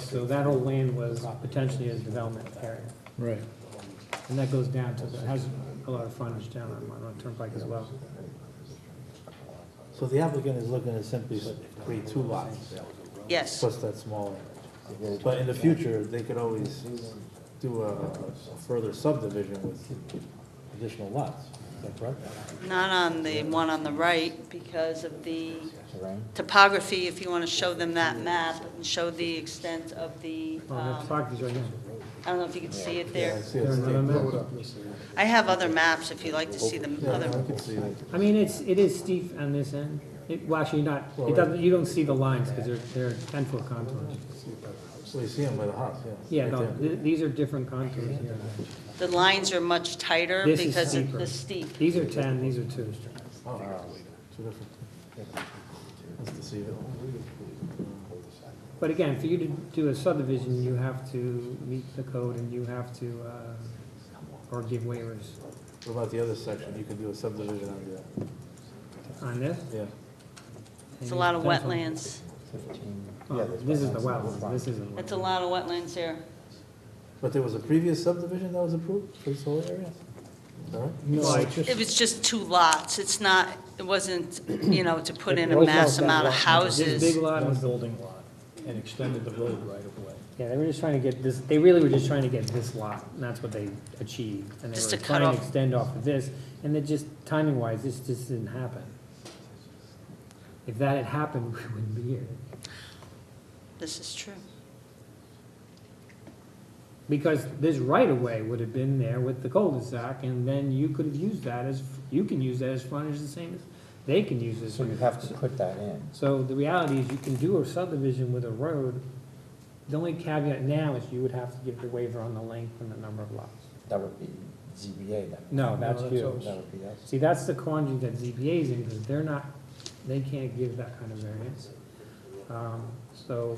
So that whole land was uh, potentially a development area. Right. And that goes down to, it has a lot of frontage down on Monroe Turnpike as well. Oh, So the applicant is looking to simply create two lots, Yes, plus that small. area. But in the future, they could always do a a further subdivision with additional lots, is that correct? not on the one on the right because of the topography, if you want to show them that map and show the extent of the, Well, the um, properties right here. I don't know if you can see it there. I see There it's another steep. map? I have other maps if you'd like to see the Yeah, I other, can see it. I mean, it's, it is steep on this end. It, well, actually not, it doesn't, you don't see the lines because they're, they're ten-foot contours. Well, you see them by the house, yeah. Yeah, right no, there. th- these are different contours here. the lines are much tighter This is because of steeper. the steep. These are ten, these are two. Oh, two different. That's deceiving. But again, for you to do a subdivision, you have to meet the code and you have to, uh, or give waivers What about the other section? You could do a subdivision on that, on this. yeah. It's a lot of Potential- wetlands. Oh, This is the wetlands, this isn't. It's a lot of wetlands here. But there was a previous subdivision that was approved for this whole area? Is that right? No, it's just, It was just two lots. It's not, it wasn't, you know, to put in a Those mass lots got amount of lots. This big houses. lot one was building lot, and extended the road right of way. Yeah, they were just trying to get this, they really were just trying to get this lot, and that's what they achieved. And they Just were to cut trying to off- extend off of this, and it just, timing-wise, this just didn't happen. If that had happened, we wouldn't be here. This is true. Because this right-of-way would have been there with the cul-de-sac, and then you could have used that as, you can use that as frontage the same as, they can use this. So you have to put that in. So the reality is, you can do a subdivision with a road. The only caveat now is you would have to give the waiver on the length and the number of lots. That would be ZBA then. No, Oh, that's that's you. us. That would be us. See, that's the quandary that ZBA's in, because they're not, they can't give that kind of variance. Um, So,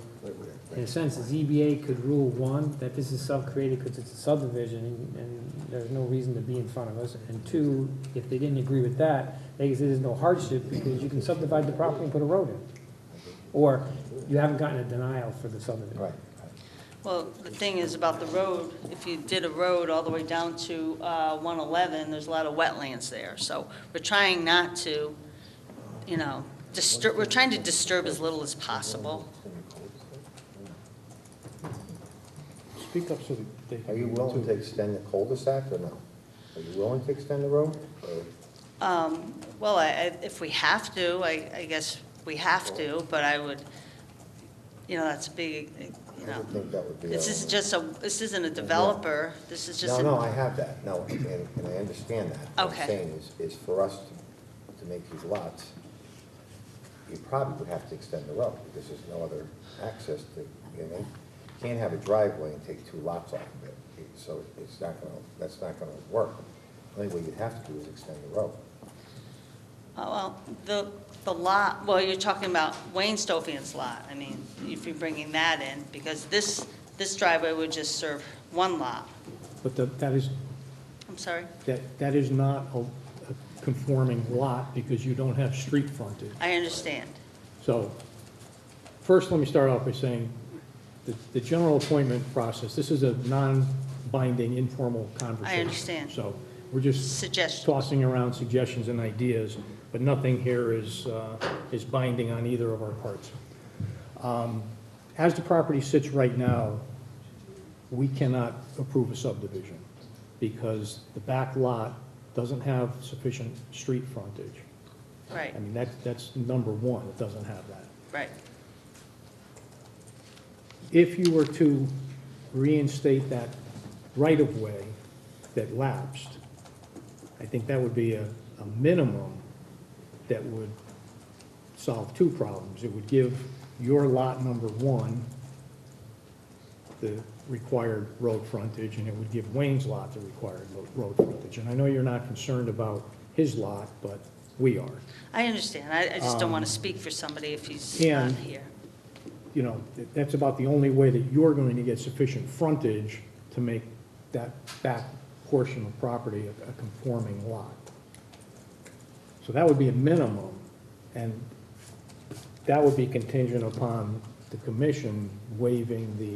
in a sense, ZBA could rule, one, that this is self-created because it's a subdivision, and- and there's no reason to be in front of us, and two, if they didn't agree with that, they could say there's no hardship, because you can subdivide the property and put a road in. Or, you haven't gotten a denial for the subdivision. Right, Well, the thing is about the road, if you did a road all the way down to uh, 111, there's a lot of wetlands there. So we're trying not to, you know, disturb, we're trying to disturb as little as possible. Speak up so they Are can you hear willing too. to extend the cul-de-sac or no? Are you willing to extend the road? Or- Um, Well, I- I- if we have to, I I guess we have to, but I would, you know, that's a big, you I know. would think that would be. This is a- just a, this isn't a developer, this is just. No, a- no, I have that, no, and, and I understand that. What Okay. I'm saying is, is for us to, to make these lots, you probably would have to extend the road, because there's no other access to, you know, you can't have a driveway and take two lots off of it, so it's not gonna, that's not gonna work. The Only way you'd have to do is extend the road. Oh, well, the, the lot, well, you're talking about Wayne Stofian's lot, I mean, if you're bringing that in, because this, this driveway would just serve one lot. But the- that is, I'm sorry, that, that is not a a conforming lot because you don't have street frontage. I understand. So, first, let me start off by saying, the, the general appointment process, this is a non-binding informal conversation. understand. So, we're just. Suggestions. Tossing around suggestions and ideas, but nothing here is, uh, is binding on either of our parts. Um, As the property sits right now, we cannot approve a subdivision because the back lot doesn't have sufficient street frontage. Right, I mean, that's, that's number one, it doesn't have that. right. If you were to reinstate that right-of-way that lapsed, I think that would be a, a minimum that would solve two problems. It would give your lot number one the required road frontage, and it would give Wayne's lot the required lo- road frontage. And I know you're not concerned about his lot, but we are. I understand, I, I just don't want to speak for somebody if he's not and- here. you know, that- that's about the only way that you're going to get sufficient frontage to make that back portion of property a a conforming lot. So that would be a minimum, and that would be contingent upon the commission waiving the